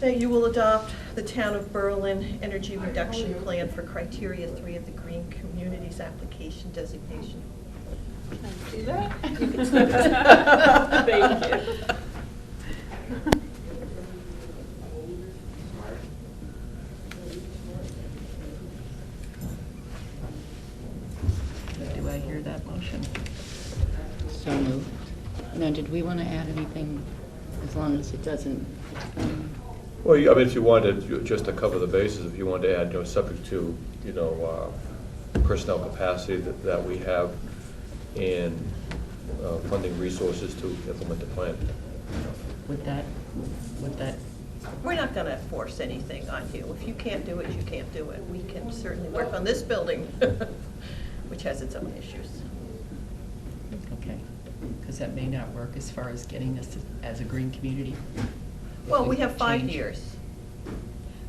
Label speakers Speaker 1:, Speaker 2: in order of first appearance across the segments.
Speaker 1: That you will adopt the Town of Berlin Energy Reduction Plan for Criteria Three of the Green Communities Application Designation.
Speaker 2: Do that?
Speaker 1: Thank you. Do I hear that motion?
Speaker 3: So moved. Now, did we want to add anything, as long as it doesn't, um,
Speaker 4: Well, you- I mean, if you wanted, you- just to cover the bases, if you wanted to add, you know, subject to, you know, uh, personnel capacity that that we have and uh, funding resources to implement the plan.
Speaker 3: would that, would that,
Speaker 1: We're not going to force anything on you. If you can't do it, you can't do it. We can certainly work on this building, which has its own issues.
Speaker 5: Okay, because that may not work as far as getting us as a green community.
Speaker 1: Well, we have five
Speaker 5: Change.
Speaker 1: years.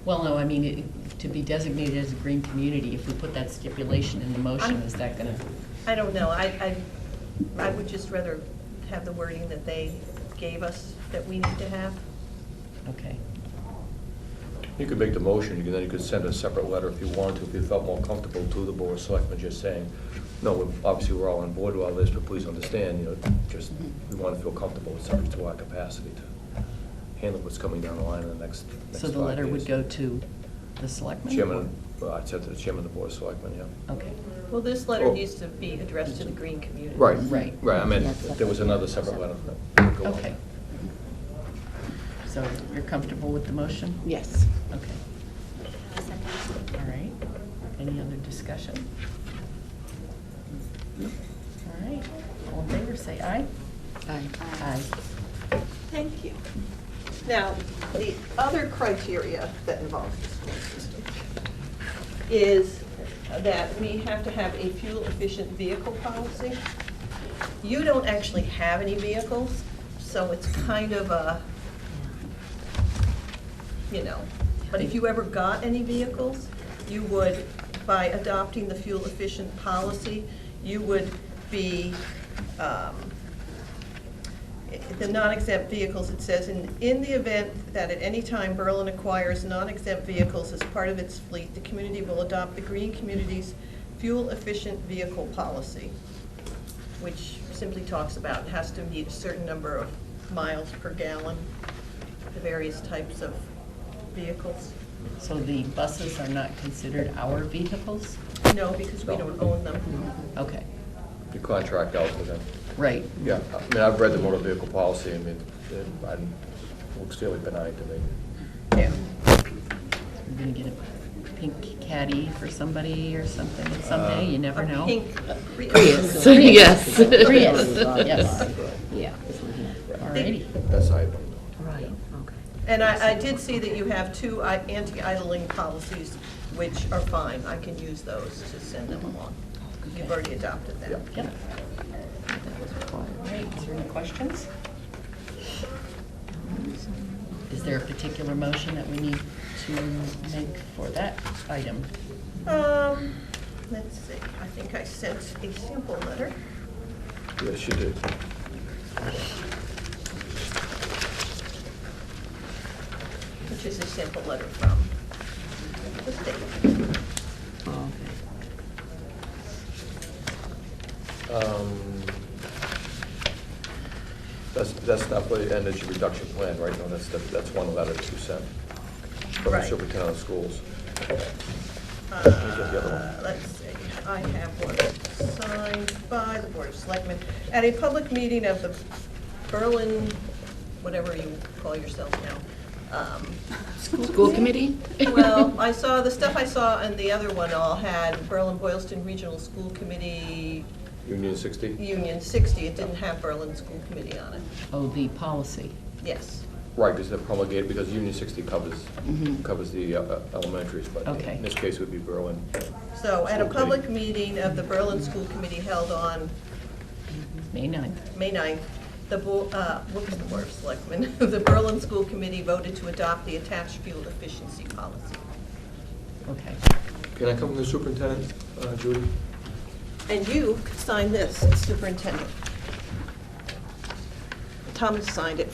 Speaker 5: Well, no, I mean, it- to be designated as a green community, if we put that stipulation in the motion,
Speaker 1: I'm-
Speaker 5: is that gonna,
Speaker 1: I don't know, I, I, I would just rather have the wording that they gave us that we need to have.
Speaker 5: okay.
Speaker 4: You could make the motion, and then you could send a separate letter if you wanted to, if you felt more comfortable to the board of selectmen, just saying, no, we're- obviously, we're all on board with all this, but please understand, you know, just, we want to feel comfortable with subject to our capacity to handle what's coming down the line in the next next
Speaker 5: So the
Speaker 4: five
Speaker 5: letter would
Speaker 4: years.
Speaker 5: go to the selectmen?
Speaker 4: Chairman, well, I said to the chairman of the board of selectmen, yeah.
Speaker 5: Okay,
Speaker 1: Well, this letter
Speaker 4: Oh.
Speaker 1: needs to be addressed to the green community.
Speaker 4: Right,
Speaker 5: Right.
Speaker 4: right, I meant,
Speaker 3: Yeah,
Speaker 4: if there was another separate letter. no, go on.
Speaker 5: okay. So you're comfortable with the motion?
Speaker 3: yes.
Speaker 5: Okay. All right. Any other discussion? All right. All in favor, say aye.
Speaker 3: Aye.
Speaker 5: Aye.
Speaker 2: Thank you. Now, the other criteria that involves the school system
Speaker 1: Is that we have to have a fuel-efficient vehicle policy. You don't actually have any vehicles, so it's kind of a, you know, but if you ever got any vehicles, you would, by adopting the fuel-efficient policy, you would be, um, the non-exempt vehicles, it says, "In in the event that at any time Berlin acquires non-exempt vehicles as part of its fleet, the community will adopt the Green Communities Fuel-Efficient Vehicle Policy," which simply talks about it has to meet a certain number of miles per gallon, the various types of vehicles.
Speaker 5: So the buses are not considered our vehicles?
Speaker 1: No, because we don't own them.
Speaker 5: Okay,
Speaker 4: You contract out with them.
Speaker 5: right.
Speaker 4: Yeah, I mean, I've read the motor vehicle policy, I mean, it I- looks fairly benign to me.
Speaker 1: Yeah.
Speaker 5: We're gonna get a pink caddy for somebody or something someday, you never know.
Speaker 1: A pink uh,
Speaker 3: Prius,
Speaker 1: Prius.
Speaker 3: yes.
Speaker 5: Prius, yes.
Speaker 3: Yeah.
Speaker 5: Alrighty.
Speaker 4: That's how I,
Speaker 3: Right, okay.
Speaker 1: And I, I did see that you have two i- anti-idling policies, which are fine, I can use those to send them along. You've already adopted
Speaker 4: Yeah.
Speaker 1: them.
Speaker 5: Yep. Alright, is there any questions? Is there a particular motion that we need to make for that item?
Speaker 1: Um, let's see, I think I sent a sample letter.
Speaker 4: yes, you did.
Speaker 1: which is a sample letter from the state.
Speaker 5: Oh,
Speaker 4: Um, That's, that's not for the energy reduction plan, right? No, that's, that's one letter that you sent from the
Speaker 1: Right.
Speaker 4: superintendent of schools. get the other one.
Speaker 1: Uh, Let's see, I have one signed by the Board of Selectmen. At a public meeting of the Berlin, whatever you call yourself now, um,
Speaker 3: School committee?
Speaker 1: Well, I saw, the stuff I saw and the other one all had Berlin Boylston Regional School Committee,
Speaker 4: Union sixty?
Speaker 1: Union 60. It didn't have Berlin School Committee on it.
Speaker 5: Oh, the policy.
Speaker 1: Yes.
Speaker 4: Right, because they're promulgated, because Union sixty covers,
Speaker 3: Mhm.
Speaker 4: covers the uh, elementaries, but
Speaker 5: Okay.
Speaker 4: in this case, it would be Berlin.
Speaker 1: So at a
Speaker 4: Okay.
Speaker 1: public meeting of the Berlin School Committee held on
Speaker 5: May 9th.
Speaker 1: May 9th, the, bo- uh, what was the Board of Selectmen? The Berlin School Committee voted to adopt the attached fuel efficiency policy.
Speaker 5: Okay.
Speaker 4: Can I come from the superintendent, uh, Judy?
Speaker 1: And you signed this, as superintendent. Thomas signed it